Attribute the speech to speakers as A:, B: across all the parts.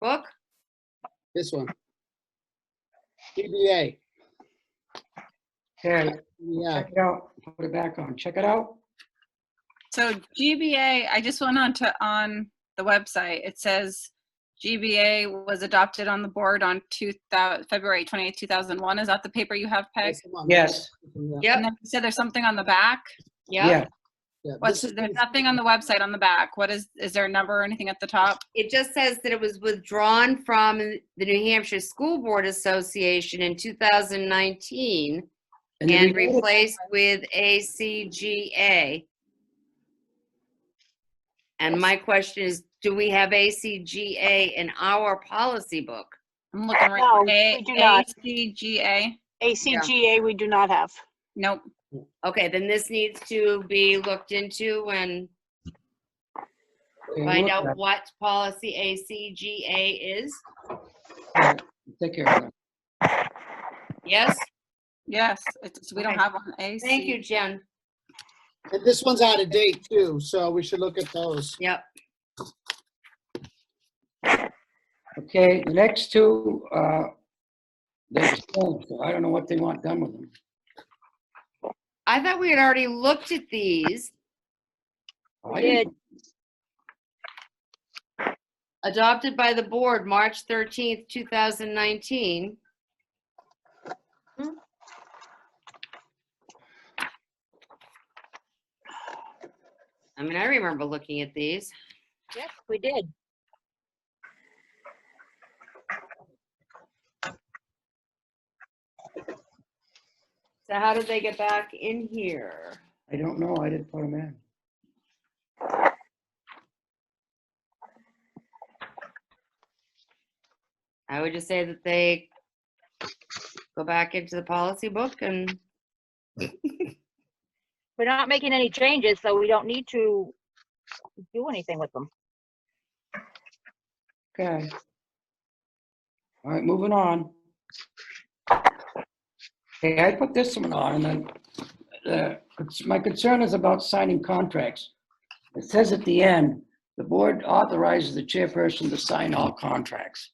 A: book?
B: This one. DBA.
C: Okay,
B: Yeah,
C: check it out, put it back on, check it out.
A: So GBA, I just went on to, on the website. It says GBA was adopted on the board on two thou, February 28, 2001. Is that the paper you have, Peg?
B: this one.
C: Yes,
B: Yeah,
A: And
D: Yep,
A: then you said there's something on the back?
D: yep.
C: yeah,
B: yeah.
A: What's,
B: This is-
A: there's nothing on the website on the back. What is, is there a number or anything at the top?
D: It just says that it was withdrawn from the New Hampshire School Board Association in 2019
C: then
D: and
C: we-
D: replaced with ACGA. And my question is, do we have ACGA in our policy book?
A: I'm looking right.
E: No,
A: A-
E: we do not.
A: ACGA?
E: ACGA, we do not have.
A: Nope.
D: Okay, then this needs to be looked into and
C: okay,
D: find
C: look
D: out
C: at
D: what policy ACGA is.
C: that. Take care of that.
D: Yes?
A: Yes, it's, we don't
D: Okay.
A: have one. AC.
D: Thank you, Jen.
B: And this one's out of date too, so we should look at those.
D: Yep.
C: Okay, the next two, uh, they're still- so I don't know what they want done with them.
D: I thought we had already looked at these.
C: I
E: Yeah.
C: didn't-
D: Adopted by the board, March 13th, 2019. I mean, I remember looking at these.
E: Yes, we did.
D: So how did they get back in here?
C: I don't know, I didn't put them in.
D: I would just say that they go back into the policy book and,
E: We're not making any changes, so we don't need to do anything with them.
C: Okay. All right, moving on. Okay, I put this one on, and then, uh, cons- my concern is about signing contracts. It says at the end, the board authorizes the chairperson to sign all contracts.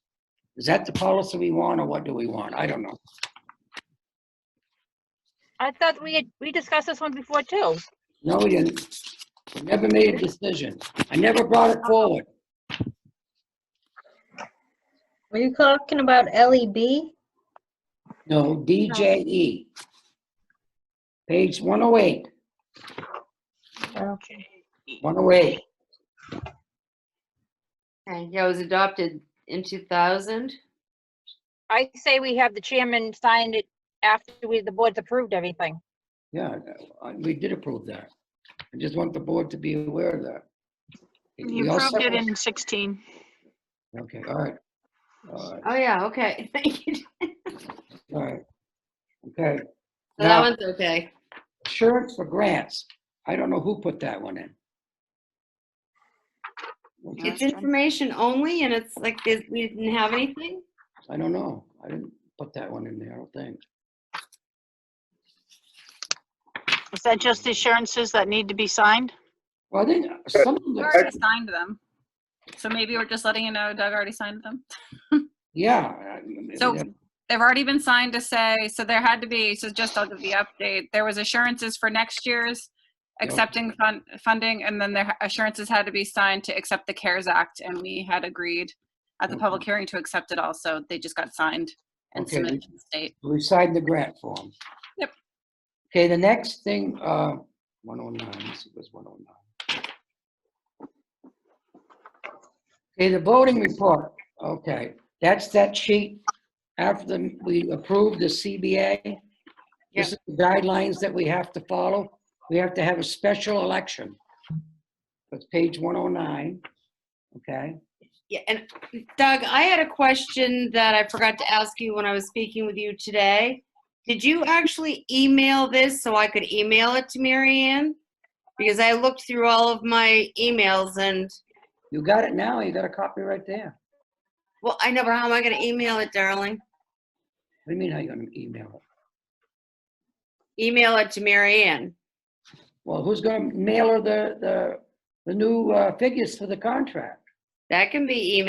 C: Is that the policy we want, or what do we want? I don't know.
E: I thought we had, we discussed this one before too.
C: No, we didn't. We Never made a decision. I never brought it forward.
F: Were you talking about E LEB?
C: No, DJE. Page 108,
E: Okay.
C: 108.
D: and yeah, it was adopted in 2000.
E: I say we have the chairman sign it after we, the board's approved everything.
C: Yeah, I- we did approve that. I just want the board to be aware of that. We
G: You
C: all
G: approved
C: set
G: it
C: with-
G: in 16.
C: Okay, all right. All right,
D: Oh, yeah, okay, thank you.
C: all right. Okay.
D: So That
C: Now,
D: one's okay.
C: insurance for grants. I don't know who put that one in. Okay,
D: It's information only and it's like this, we didn't have anything?
C: I don't know. I didn't put that one in there, I don't think.
G: Is that just assurances that need to be signed?
C: Well, I think some of
A: We
C: the,
A: already signed them. So maybe we're just letting you know Doug already signed them.
C: yeah. I- I mean,
A: So-
C: yeah,
A: They've already been signed to say, so there had to be, so just I'll give the update. There was assurances for next year's
C: Yep.
A: accepting fund, funding, and then their assurances had to be signed to accept the CARES Act, and we had agreed at the public hearing to accept it also. They just got signed and
C: Okay.
A: submitted to the state.
C: We signed the grant form.
A: Yep.
C: Okay, the next thing, uh, 109, let's see, what's 109? Okay, the voting report, okay, that's that sheet after the- we approved the CBA. This is the guidelines that we have to follow. We have to have a special election. That's page 109, okay?
D: Yeah, and Doug, I had a question that I forgot to ask you when I was speaking with you today. Did you actually email this so I could email it to Mary Ann? Because I looked through all of my emails and,
C: You got it now, you got a copy right there.
D: well, I know, but how am I gonna email it, darling?
C: What do you mean, how you gonna email it?
D: Email it to Mary Ann.
C: Well, who's going to mail her the, the, the new uh, figures for the contract?
D: That can be emailed